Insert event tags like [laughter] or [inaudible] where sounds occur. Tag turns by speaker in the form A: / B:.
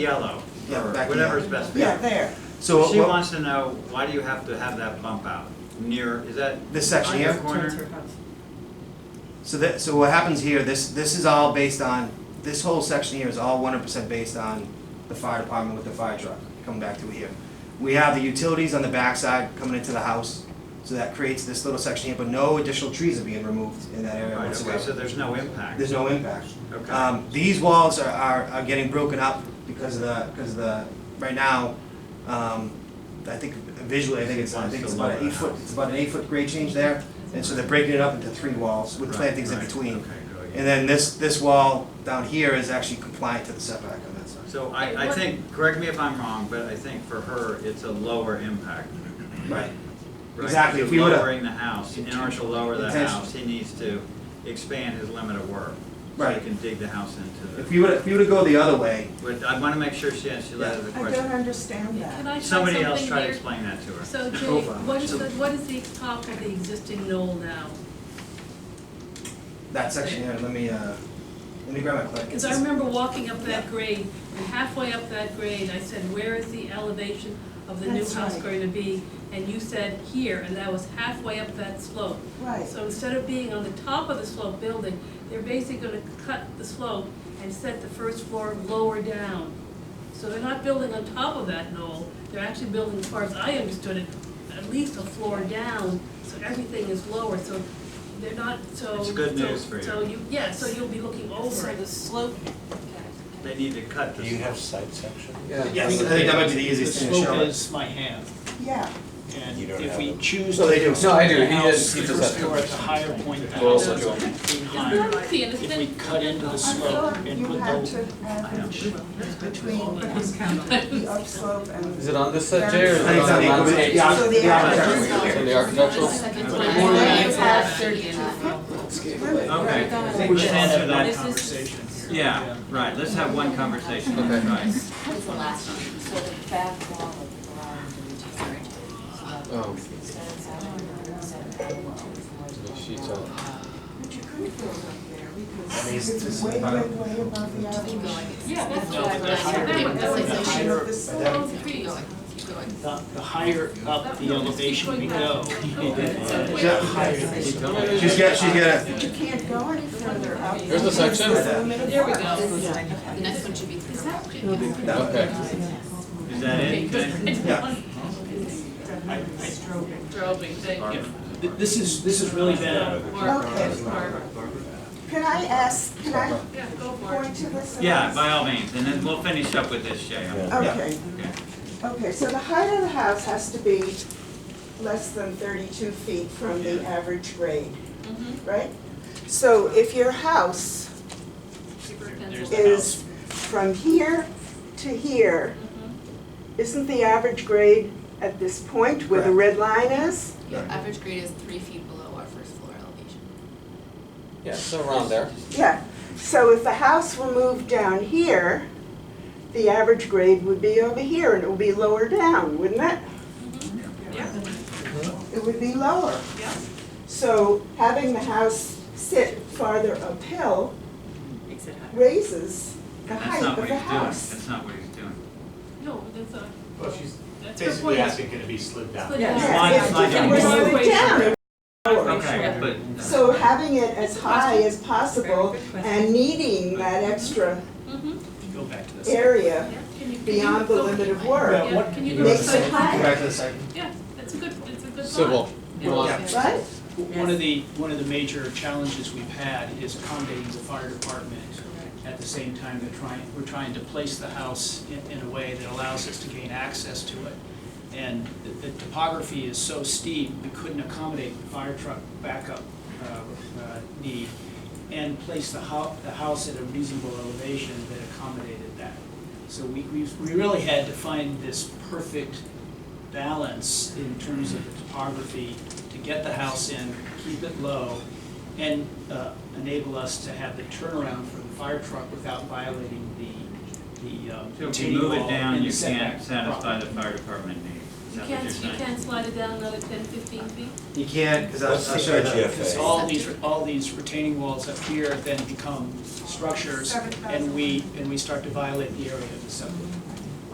A: yellow,
B: Yeah,
A: or
B: back to
A: whatever's
B: yellow.
A: best.
C: Yeah, there.
B: So
A: She
B: what-
A: wants to know, why do you have to have that bump out near, is that
B: this section
A: on your
B: here,
A: corner?
B: so that, so what happens here, this, this is all based on, this whole section here is all one hundred percent based on the fire department with the fire truck, coming back to here. We have the utilities on the backside coming into the house, so that creates this little section here, but no additional trees are being removed in that area
A: Right, okay, so
B: whatsoever.
A: there's no impact.
B: There's no impact.
A: Okay.
B: Um, these walls are, are, are getting broken up because of the, because of the, right now, um, I think visually, I think it's, I think it's about an eight foot, it's about an eight foot grade change there. And so they're breaking it up into three walls with
A: Right,
B: plantings in
A: right,
B: between.
A: okay, good, yeah.
B: And then this, this wall down here is actually compliant to the setback on that side.
A: So I, I think, correct me if I'm wrong, but I think for her, it's a lower impact.
B: Right.
A: right?
B: Exactly,
A: You're
B: if we would've-
A: Lowering the house, in order to lower the
B: Intention-
A: house, he needs to expand his limit of work. So
B: Right.
A: he can dig the house into
B: If
A: the,
B: you would, if you were to go the other way,
A: but I wanna make sure she answers the
C: I don't
A: question.
C: understand
D: Can
C: that.
D: I try something
A: Somebody
D: here?
A: else try to explain that to her.
D: So Jay,
B: Profile.
D: what is the, what is the top of the existing knoll now?
B: that section here, let me, uh, let me grab my clip.
D: Because I remember walking up that grade, and halfway up that grade, I said, where is the elevation of the new
C: That's
D: house
C: right.
D: going to be? And you said, here, and that was halfway up that slope.
C: Right.
D: So instead of being on the top of the slope building, they're basically gonna cut the slope and set the first floor lower down. So they're not building on top of that knoll, they're actually building, as far as I understood it, at least a floor down, so everything is lower, so they're not, so.
A: It's good
D: so-
A: news for you.
D: So you, yeah, so you'll be looking over
E: So
D: it.
E: the slope,
A: They need to cut
F: Do
A: this.
F: you have site section?
B: Yes, I think that might be the easiest thing to show.
G: The slope is my hand,
C: Yeah,
G: and
F: You don't
G: if
F: have
G: we
F: them.
G: choose
B: No,
G: to
B: they do.
G: do the
F: No, I do. He
G: house,
F: does- he
G: the
F: does
G: first
F: have
G: floor at
F: them.
G: the higher point of the
F: Well,
G: house,
F: also
G: behind.
D: It's not clear, it's
G: If we
D: been-
G: cut into the
C: I
G: slope
C: thought
G: and
C: you
G: put
C: had
G: the,
C: to average between the upslope and.
F: Is it on this side, Jay, or is
B: I
F: it
B: think it's on
F: on the
B: the,
F: landscape?
B: yeah,
C: So the
B: the
C: architectural-
B: architectural.
F: It's on the architectural?
A: Okay,
E: I
G: we
A: let's
G: should
A: answer that.
G: have that
E: This is-
G: conversation here.
A: Yeah, right, let's have one conversation,
F: Okay.
A: right.
H: What's the last one? So the back wall of the garage is different. So that-
F: Oh.
H: so that's how I know it's at that wall.
F: The sheets are-
C: But you couldn't build up there
B: At
C: because
B: least
C: it's
B: this
C: way, way,
B: is
C: way
B: about-
C: above the
H: Keep
C: average.
H: going. It's-
D: Yeah, that's
H: it's
D: what
H: like
D: I-
H: that.
D: I remember.
H: That's like
G: The
H: the
G: higher-
C: The
B: that-
C: slope,
H: Keep
D: Trees.
H: going, keep going.
G: The, the higher up the elevation we go, [laughs]
B: Yeah.
G: the higher the
B: She's got, she's got
C: you can't go any further up.
F: Here's the section.
C: There
H: we go. The next one should be three.
B: a,
H: Is
B: no.
F: Okay.
A: Is that it? Good.
B: Yeah.
D: Driving, thank you.
G: Th- This is, this is really bad.
C: Okay. Can I ask, can I
D: Yeah, go for
C: point
D: it.
C: to this? and
A: Yeah,
C: ask?
A: by all means, and then we'll finish up with this, Jay.
D: Oh,
F: Yeah.
C: Okay,
A: Okay.
C: okay, so the height of the house has to be less than thirty-two feet from the average grade, right? So if your house is from here to here, isn't the average grade at this point where the red line is?
H: Your average grade is three feet below our first floor elevation.
F: Yeah, so around there.
C: Yeah, so if the house were moved down here, the average grade would be over here and it would be lower down, wouldn't it?
D: Yeah.
C: It would be lower.
D: Yeah.
C: So having the house sit farther uphill raises the
A: That's
C: height
A: not
C: of
A: what
C: the
A: he's doing,
C: house.
A: that's not what he's doing.
D: No, that's a,
I: Well, she's
D: that's her
I: basically
D: point.
I: asking, can it be slid down?
D: Slid
C: Yeah,
D: down.
A: Why-
C: if
A: why
C: it
A: not?
C: were slid down, it
A: Okay, but. uh,
C: So having it as high as possible and needing that extra
D: Mhm.
G: Go back to this.
C: area
D: Yeah. Can you- can
C: beyond
D: you
C: the
D: go-
C: limit of
G: Yeah,
C: work,
D: Yeah, can you
B: Go
D: go
B: back
C: makes
B: to the
C: it
B: second,
D: inside?
B: go
C: higher,
B: back to the second.
D: Yeah, that's a good, that's a good thought.
F: Civil.
D: Yeah.
F: Well,
C: right?
G: One of the, one of the major challenges we've had is accommodating the fire department. At the same time, they're trying, we're trying to place the house in, in a way that allows us to gain access to it. And the, the topography is so steep, we couldn't accommodate the fire truck backup, uh, uh, need and place the hou, the house at a reasonable elevation that accommodated that. So we, we, we really had to find this perfect balance in terms of the topography to get the house in, keep it low, and uh, enable us to have the turnaround for the fire truck without violating the, the um,
A: So if you
G: retaining
A: move
G: wall
A: it down,
G: and the
A: you
G: setback
A: can't satisfy
G: problem.
A: the fire department needs. Is that
D: You
A: what
D: can't,
A: you're
D: you
A: saying?
D: can't slide it down another ten, fifteen feet?
B: You can't, because I'll,
E: What's the
B: I'll show you that.
E: HFA?
G: Because all these, all these retaining walls up here then become structures, and we, and we start to violate the area of the subdivision.